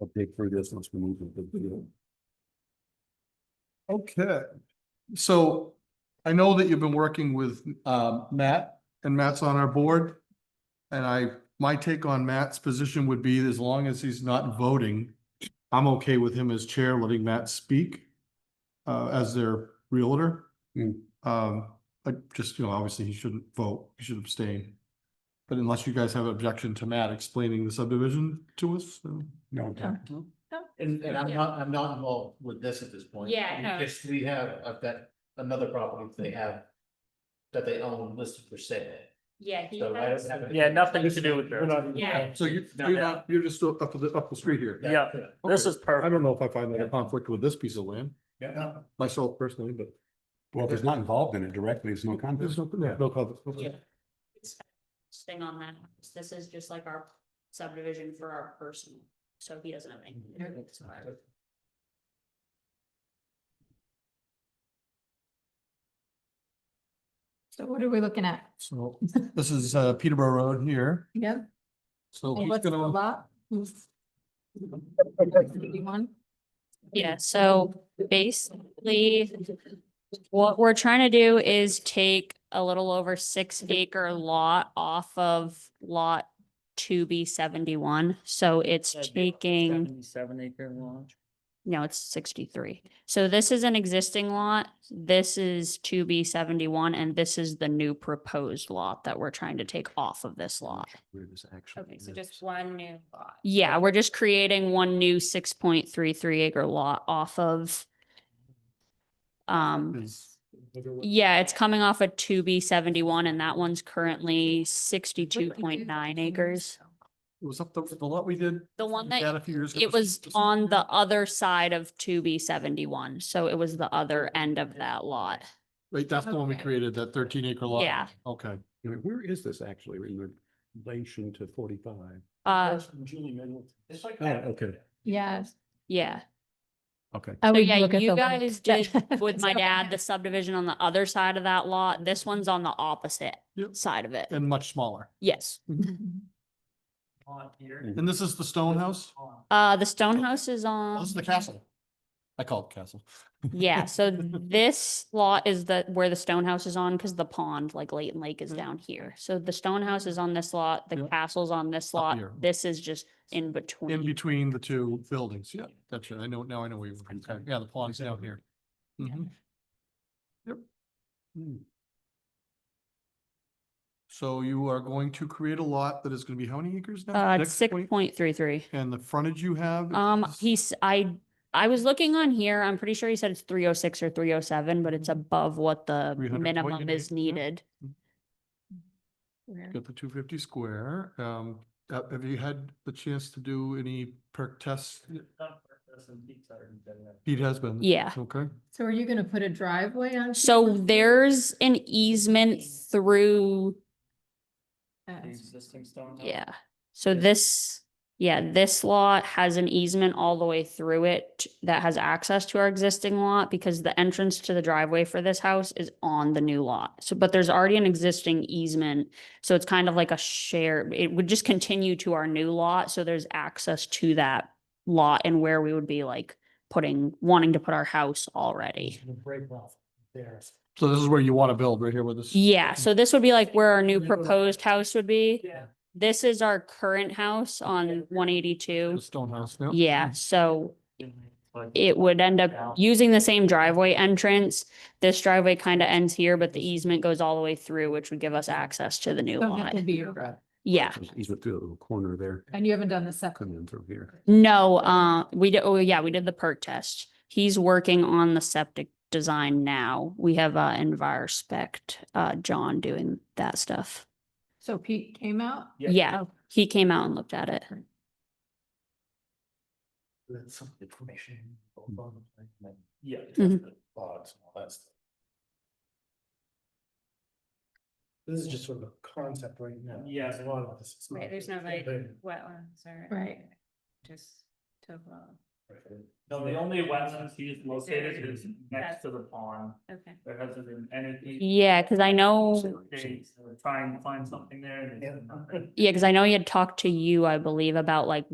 I'll dig through this once we move to the deal. Okay, so I know that you've been working with um Matt and Matt's on our board. And I, my take on Matt's position would be as long as he's not voting, I'm okay with him as chair, letting Matt speak. Uh, as their realtor. Hmm. Um, like just, you know, obviously he shouldn't vote, he should abstain. But unless you guys have objection to Matt explaining the subdivision to us, then- No, okay. And, and I'm Yeah. not, I'm not involved with this at this point. Yeah, no. Because we have, I've got another property that they have that they own listed for sale. Yeah, he So I has. don't have. Yeah, nothing to do with We're not- Yeah. so you, No, you're no. not, you're just up to the, up the street here. Yeah. This Okay. is perfect. I don't know if I find that a conflict with this piece of land, Yeah. myself personally, but Well, if it's not involved in it directly, it's no there's contest. no, no, no conflict. Yeah. it's Thing on that, this is just like our subdivision for our personal, so he doesn't have anything. It's fine. So what are we looking at? So this is uh Peterborough Road here, Yep. so And he's what's the gonna, lot? Who's- Eighty-one? Yeah, so basically, what we're trying to do is take a little over six acre lot off of lot two B seventy-one, so it's taking. Seven acre launch. No, it's sixty-three. So this is an existing lot, this is two B seventy-one, and this is the new proposed lot that we're trying to take off of this lot. Where this actually Okay, so is. just one new lot. Yeah, we're just creating one new six point three three acre lot off of. Um, is yeah, it's coming off of two B seventy-one and that one's currently sixty-two point nine acres. it was up the, the lot we did. The one that had a few years ago. It was on the other side of two B seventy-one, so it was the other end of that lot. Wait, that's the one we Okay. created, that thirteen acre lot? Yeah. Okay, I mean, Where is this actually in relation to forty-five? Uh, That's from Julie Middleton. It's like. Oh, okay. Yes. yeah. Okay. I So would yeah, look at you the lot. guys did That- with my so- dad, the subdivision on the other side of that lot. This one's on the opposite Yep. side of it. and much smaller. Yes. On here. And this is the stone house? Uh, the stone house is Oh, on, This is the castle. I call it castle. yeah, so this lot is the, where the stone house is on, because the pond, like Leighton Lake is down here. So the stone house is on this lot, the Mm-hmm. Yep. castle's on Up this lot. here. This is just in In between. between the two buildings, yeah, that's it. I know, now I know where you're, from. yeah, the pond's down here. Mhm. Yep. Hmm. So you are going to create a lot that is gonna be how many acres now? Uh, Next six point? point three three. And the frontage you have? Um, is- he's, I, I was looking on here, I'm pretty sure he said it's three oh six or three oh seven, but it's above what the 300 point minimum and is eight, yeah. needed. Where? Got the two fifty square. Um, have have you had the chance to do any perk tests? Pete has been. Yeah. Okay. So are you gonna put a driveway on? So Peter's? there's an easement through, The Yes. existing stone. house. yeah, so this, yeah, this lot has an easement all the way through it that has access to our existing lot because the entrance to the driveway for this house is on the new lot. So, but there's already an existing easement, so it's kind of like a share, it would just continue to our new lot, so there's access to that lot and where we would be like putting, wanting to put our house already. Break off there. So this is where you want to build, right here with this? Yeah, so this would be like where our new Middle. proposed house would be. Yeah. This is our current house on one The eighty-two. stone house. Yeah, so But it would end Yeah. up using the same driveway entrance. This driveway kind of ends here, but the easement goes all the way through, which would give us access to the new Don't have lot. to be your driveway. Yeah, He's through that little corner there, And you haven't done the second. coming in through here. no, uh, we did, oh yeah, we did the perk test. He's working on the septic design now. We have, uh, EnviroSpect, uh, John doing that stuff. So Pete came out? Yeah. Yeah, he came out and looked at it. That's some information. Yeah. Mhm. Logs and all that stuff. This is just sort of a concept right now. Yeah. There's A lot of this. is not- Right, there's no like wetlands or. Right. Just topo, No, the only wetlands he is located is next to the pond. okay. There hasn't been anything. Yeah, because I know, They were trying to find something there and. they couldn't. yeah, because I know he had talked to you, I believe, about like